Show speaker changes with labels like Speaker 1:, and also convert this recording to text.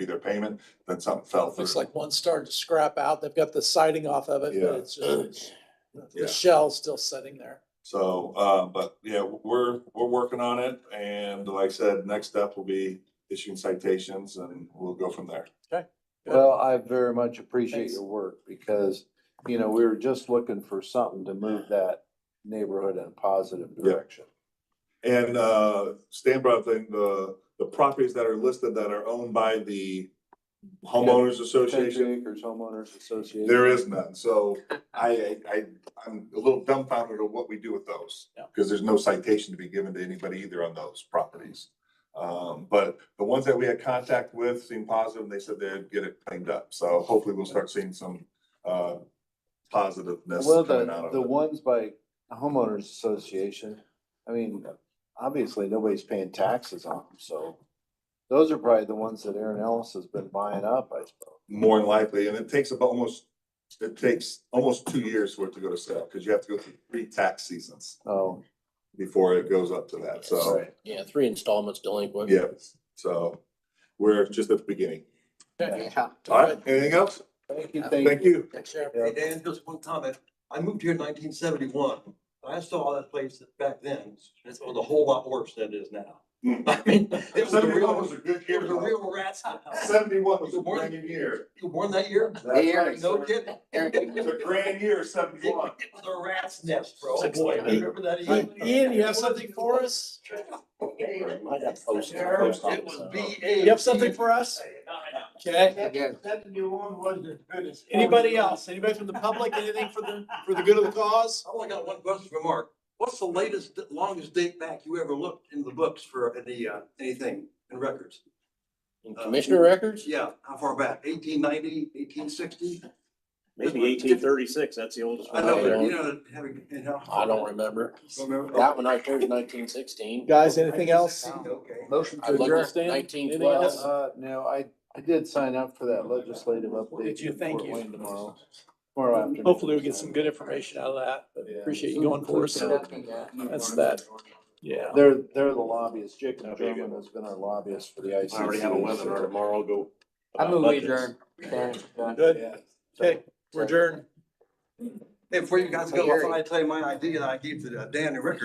Speaker 1: be their payment, then something fell through.
Speaker 2: Looks like one started to scrap out. They've got the siding off of it,
Speaker 1: Yeah.
Speaker 2: but it's, uh, just-
Speaker 1: Yeah.
Speaker 2: the shell's still sitting there.
Speaker 1: So, uh, but yeah, we're, we're working on it and like I said, next step will be issuing citations and we'll go from there.
Speaker 2: Good.
Speaker 3: Well, I very much appreciate
Speaker 2: Thanks.
Speaker 3: your work because, you know, we were just looking for something to move that neighborhood in a positive
Speaker 1: Yeah.
Speaker 3: direction.
Speaker 1: And, uh, Stan brought up the- the, the properties that are listed that are owned by the homeowners association.
Speaker 3: Country Acres Homeowners Association.
Speaker 1: There is none, so I, I, I- I'm a little dumbfounded of what we do with those.
Speaker 2: Yeah.
Speaker 1: Cause there's no citation to be given to anybody either on those properties. Um, but the ones that we had contact with seemed positive, and they said they'd get it cleaned up, so hopefully we'll start seeing some, uh, positiveness
Speaker 3: Well,
Speaker 1: coming out
Speaker 3: the,
Speaker 1: of
Speaker 3: the
Speaker 1: it.
Speaker 3: ones by homeowners association, I mean, obviously, nobody's paying taxes on them, so. Those are probably the ones that Aaron Ellis has been buying up, I suppose.
Speaker 1: More than likely, and it takes about almost, it takes almost two years for it to go to sale, cause you have to go through three tax seasons
Speaker 3: Oh,
Speaker 1: before it goes up to that, so,
Speaker 3: sorry.
Speaker 4: Yeah, three installments delinquent.
Speaker 1: yeah, so we're just at the beginning.
Speaker 2: Okay.
Speaker 1: All right, anything else?
Speaker 3: Thank you,
Speaker 1: Thank you.
Speaker 2: Thanks, Sheriff.
Speaker 3: Yeah.
Speaker 5: Hey, Dan, just one comment. I moved here in nineteen seventy-one. I saw that place back then. It was a whole lot worse than it is now.
Speaker 1: Hmm.
Speaker 5: I mean, it was a
Speaker 1: Seventy-one was
Speaker 5: real,
Speaker 1: a good
Speaker 5: it
Speaker 1: year.
Speaker 5: was a
Speaker 1: though.
Speaker 5: real rat's house.
Speaker 1: Seventy-one was a grand year.
Speaker 5: You were born that year?
Speaker 1: That's right.
Speaker 5: No kidding.
Speaker 1: It was a grand year, seventy-one.
Speaker 5: It was a rat's nest, bro. Oh,
Speaker 4: Six
Speaker 5: Boy, I
Speaker 4: seven eight.
Speaker 5: remember that.
Speaker 2: Ian, you have something for us?
Speaker 4: I got posted.
Speaker 5: It was B A.
Speaker 2: You have something for us? Okay.
Speaker 4: Again,
Speaker 2: Anybody else? Anybody from the public? Anything for the, for the good of the cause?
Speaker 5: I only got one question for Mark. What's the latest, longest date back you ever looked in the books for any, uh, anything in records?
Speaker 4: in Commissioner records,
Speaker 5: Yeah, how far back? 1890, 1860?
Speaker 6: Maybe eighteen thirty-six, that's the oldest
Speaker 5: I
Speaker 6: one.
Speaker 5: know, but you know, having, you know.
Speaker 4: I don't remember. That one right there is nineteen sixteen.
Speaker 2: Guys, anything else?
Speaker 5: Okay.
Speaker 3: Motion
Speaker 4: I looked at nineteen twelve.
Speaker 3: Uh, no, I, I did sign up for that legislative update.
Speaker 2: Did you?
Speaker 3: in
Speaker 2: Thank
Speaker 3: Fort
Speaker 2: you.
Speaker 3: Wayne Tomorrow, tomorrow afternoon.
Speaker 2: Hopefully we'll get some good information out of that. but Appreciate you going for us. That's that. Yeah.
Speaker 3: They're, they're the lobbyists. Jacob
Speaker 6: Okay, good.
Speaker 3: Drummond has been our lobbyist for the ICC.
Speaker 6: I already have a webinar tomorrow, go.
Speaker 7: I
Speaker 6: about
Speaker 7: move we
Speaker 6: budgets.
Speaker 7: adjourn.
Speaker 2: Good.
Speaker 3: Yeah.
Speaker 2: Okay. We're adjourned.
Speaker 5: Hey, before you guys go, I thought I'd tell you my idea that I gave to uh, Dan and Rick